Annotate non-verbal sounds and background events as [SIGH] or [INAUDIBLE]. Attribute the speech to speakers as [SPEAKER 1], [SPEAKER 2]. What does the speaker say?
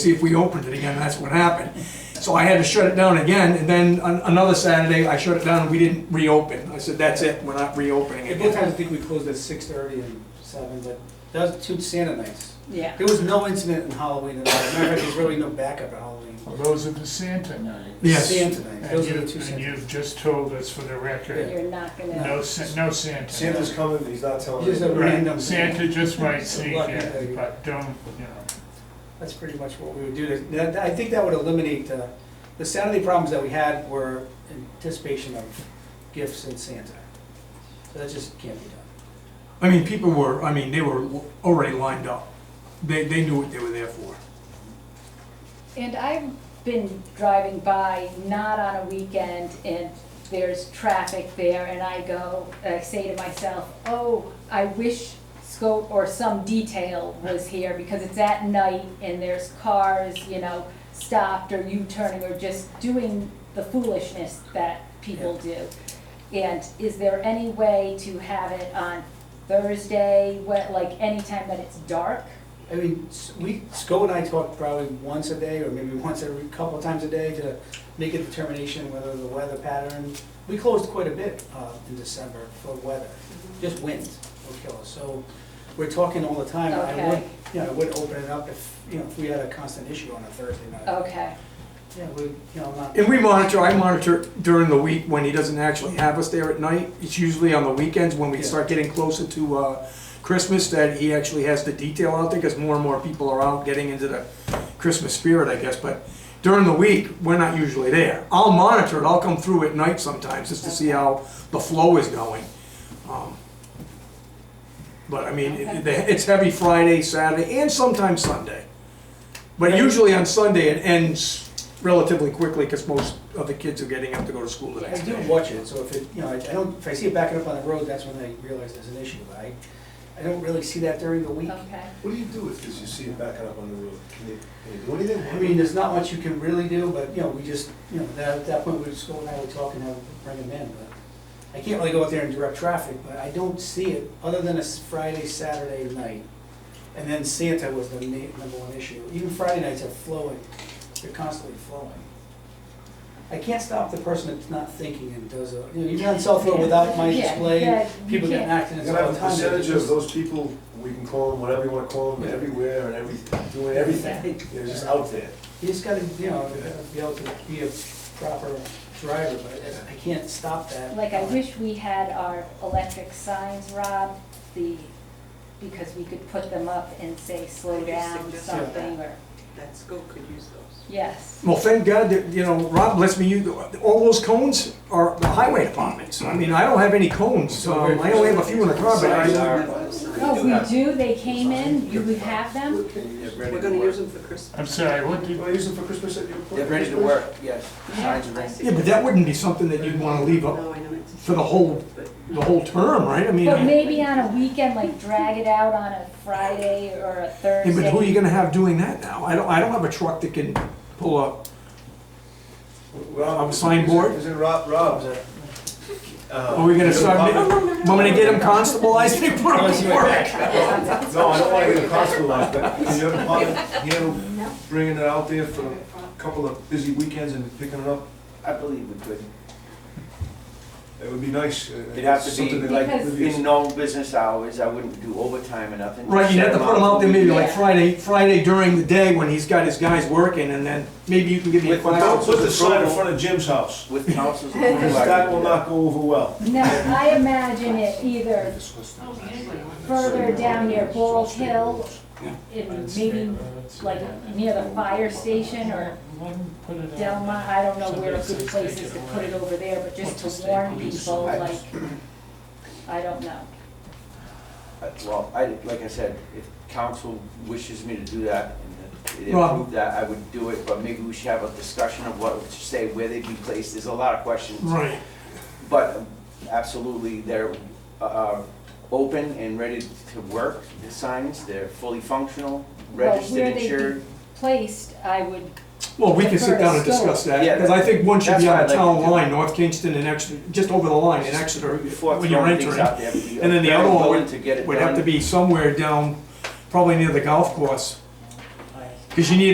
[SPEAKER 1] see if we opened it again, and that's what happened. So I had to shut it down again, and then an- another Saturday, I shut it down, and we didn't reopen. I said, that's it, we're not reopening
[SPEAKER 2] Yeah,
[SPEAKER 1] it.
[SPEAKER 2] both times I think we closed at six thirty and seven, but that was two Santa nights.
[SPEAKER 3] Yeah.
[SPEAKER 2] There was no incident in Halloween at all. Matter of fact, there's really no backup at Halloween.
[SPEAKER 4] Well, those are the Santa nights.
[SPEAKER 1] Yes.
[SPEAKER 2] Santa nights,
[SPEAKER 4] And
[SPEAKER 2] those
[SPEAKER 4] you,
[SPEAKER 2] are the two
[SPEAKER 4] and
[SPEAKER 2] Santa.
[SPEAKER 4] you've just told us for the record,
[SPEAKER 3] You're not
[SPEAKER 4] no,
[SPEAKER 3] gonna,
[SPEAKER 4] Sa- no Santa.
[SPEAKER 5] Santa's coming, but he's not telling
[SPEAKER 2] He's
[SPEAKER 5] anybody.
[SPEAKER 2] a-
[SPEAKER 4] Right,
[SPEAKER 2] Random. [LAUGHS]
[SPEAKER 4] Santa just might sneak
[SPEAKER 2] Lucky
[SPEAKER 4] in,
[SPEAKER 2] thing.
[SPEAKER 4] but don't, you know,
[SPEAKER 2] That's pretty much what we would do. to- That, I think that would eliminate, uh, the Saturday problems that we had were anticipation of gifts and Santa. So that just can't be done.
[SPEAKER 1] I mean, people were, I mean, they were already lined up. They, they knew what they were there for.
[SPEAKER 3] and I've been driving by, not on a weekend, and there's traffic there, and I go, I say to myself, oh, I wish scope or some detail was here, because it's at night, and there's cars, you know, stopped or U-turning, or just doing the foolishness that people do. And is there any way to have it on Thursday, what, like, anytime that it's dark?
[SPEAKER 2] I mean, s- we, Sco and I talk probably once a day, or maybe [LAUGHS] once every couple times a day to make a determination whether the weather pattern, we closed quite a bit uh, in December for weather,
[SPEAKER 3] Mm-hmm.
[SPEAKER 2] just wind will kill us. So we're talking all the time, I would,
[SPEAKER 3] Okay.
[SPEAKER 2] you know, I would open it up if, you know, if we had a constant issue on a Thursday night.
[SPEAKER 3] Okay.
[SPEAKER 2] Yeah, we, you know, not.
[SPEAKER 1] And we monitor, I monitor during the week when he doesn't actually have us there at night. It's usually on the weekends when we
[SPEAKER 2] Yeah.
[SPEAKER 1] start getting closer to uh, Christmas that he actually has the detail out there because more and more people are out getting into the Christmas spirit, I guess. But during the week, we're not usually there. I'll monitor it. I'll come through at night sometimes just to see how the flow is going. Um, But I mean, it- it- it's heavy Friday, Saturday, and sometimes Sunday. But usually on Sunday, it ends relatively quickly because most of the kids are getting up to go to school the
[SPEAKER 2] I
[SPEAKER 1] next
[SPEAKER 2] do
[SPEAKER 1] day.
[SPEAKER 2] watch it, so if it, you know, I I don't, if I see it backing up on the road, that's when I realize there's an issue. But I, I don't really see that during the week.
[SPEAKER 3] Okay,
[SPEAKER 5] What do you do if, because you see it backing up on the road? Can you, can you do anything?
[SPEAKER 2] I mean, there's not much you can really do, but, you know, we just, you know, that- at that point, we just go and have a talk and have, bring them in, but I can't really go out there and direct traffic, but I don't see it, other than a s- Friday, Saturday night. And then Santa was the ma- number one issue. Even Friday nights are flowing, they're constantly flowing. I can't stop the person that's not thinking and does a, you know, even on South Road without my
[SPEAKER 3] Yeah,
[SPEAKER 2] display,
[SPEAKER 3] yeah, you
[SPEAKER 2] people get
[SPEAKER 3] can't-
[SPEAKER 2] accidents
[SPEAKER 5] You're gonna
[SPEAKER 2] all
[SPEAKER 5] have
[SPEAKER 2] the
[SPEAKER 5] a
[SPEAKER 2] time.
[SPEAKER 5] percentage of those people, we can call them whatever you wanna call them, everywhere and every, doing everything. They're just out there.
[SPEAKER 2] You just gotta, you know, be able to be a proper driver, but I can't stop that.
[SPEAKER 3] like I wish we had our electric signs, Rob, the, because we could put them up and say, slow
[SPEAKER 6] Could you
[SPEAKER 3] down,
[SPEAKER 6] suggest
[SPEAKER 3] something,
[SPEAKER 6] that?
[SPEAKER 3] or,
[SPEAKER 6] that school could use those.
[SPEAKER 3] yes.
[SPEAKER 1] Well, thank God that, you know, Rob lets me use, all those cones are the highway departments. I mean, I don't have any cones. Um, I only have a few in the car, but I,
[SPEAKER 3] No, we do, they came in, you would have them,
[SPEAKER 6] We're gonna use them for Christmas.
[SPEAKER 4] I'm sorry, what
[SPEAKER 5] You
[SPEAKER 4] did,
[SPEAKER 5] wanna use them for Christmas at your?
[SPEAKER 7] They're ready to work, yes. Signs are ready.
[SPEAKER 1] yeah, but that wouldn't be something that you'd want to leave up
[SPEAKER 6] No, I know it's-
[SPEAKER 1] for the whole,
[SPEAKER 6] But
[SPEAKER 1] the whole term, right? I mean,
[SPEAKER 3] but
[SPEAKER 1] yeah,
[SPEAKER 3] maybe on a weekend, like drag it out on a Friday or a Thursday.
[SPEAKER 1] but who are you gonna have doing that now? I don't, I don't have a truck that can pull up.
[SPEAKER 5] Rob-
[SPEAKER 1] On the signboard?
[SPEAKER 5] Is it Rob, Rob's? uh,
[SPEAKER 1] Are we gonna start, ma- want me to get them constablized? [LAUGHS] They put them to work.
[SPEAKER 5] No, I don't wanna get a constable life, but can your department handle bringing it out there for a couple of busy weekends and picking it up?
[SPEAKER 7] I believe we could.
[SPEAKER 5] It would be nice. uh,
[SPEAKER 7] It'd have to
[SPEAKER 5] something
[SPEAKER 7] be
[SPEAKER 5] that I-
[SPEAKER 3] Because-
[SPEAKER 7] in normal business hours, I wouldn't do overtime or nothing.
[SPEAKER 1] Right, you'd have to put them out there maybe like
[SPEAKER 3] Yeah.
[SPEAKER 1] Friday, Friday during the day when he's got his guys working and then maybe you can give me a
[SPEAKER 7] With-
[SPEAKER 1] class.
[SPEAKER 5] Don't put the sign in front of Jim's house,
[SPEAKER 7] With
[SPEAKER 1] [LAUGHS]
[SPEAKER 7] councils.
[SPEAKER 5] because that will not go over well.
[SPEAKER 3] No, I imagine it either further down near Bald Hill, in maybe like near the fire station or
[SPEAKER 4] put it out.
[SPEAKER 3] Delma, I don't know where a good place is to put it over there, but just to warn people, like, I don't know.
[SPEAKER 7] Uh, Well, I, like I said, if council wishes me to do that and they
[SPEAKER 1] Rob.
[SPEAKER 7] approve that, I would do it, but maybe we should have a discussion of what, to say where they'd be placed. There's a lot of questions.
[SPEAKER 1] Right.
[SPEAKER 7] But um, absolutely, they're uh, open and ready to work, the signs, they're fully functional, registered,
[SPEAKER 3] where they
[SPEAKER 7] insured.
[SPEAKER 3] be- Placed, I would,
[SPEAKER 1] Well, we can sit down and discuss that,
[SPEAKER 7] Yeah,
[SPEAKER 1] because I think one should be on the
[SPEAKER 7] that's what I'd
[SPEAKER 1] town
[SPEAKER 7] like to do.
[SPEAKER 1] line, North Kingston and Exeter, just over the line in Exeter,
[SPEAKER 7] Before
[SPEAKER 1] when you're
[SPEAKER 7] throwing things
[SPEAKER 1] entering.
[SPEAKER 7] out there. we'd be
[SPEAKER 1] And then the
[SPEAKER 7] very
[SPEAKER 1] other one
[SPEAKER 7] willing to get it
[SPEAKER 1] Would have
[SPEAKER 7] done.
[SPEAKER 1] to be somewhere down, probably near the golf course. Because you need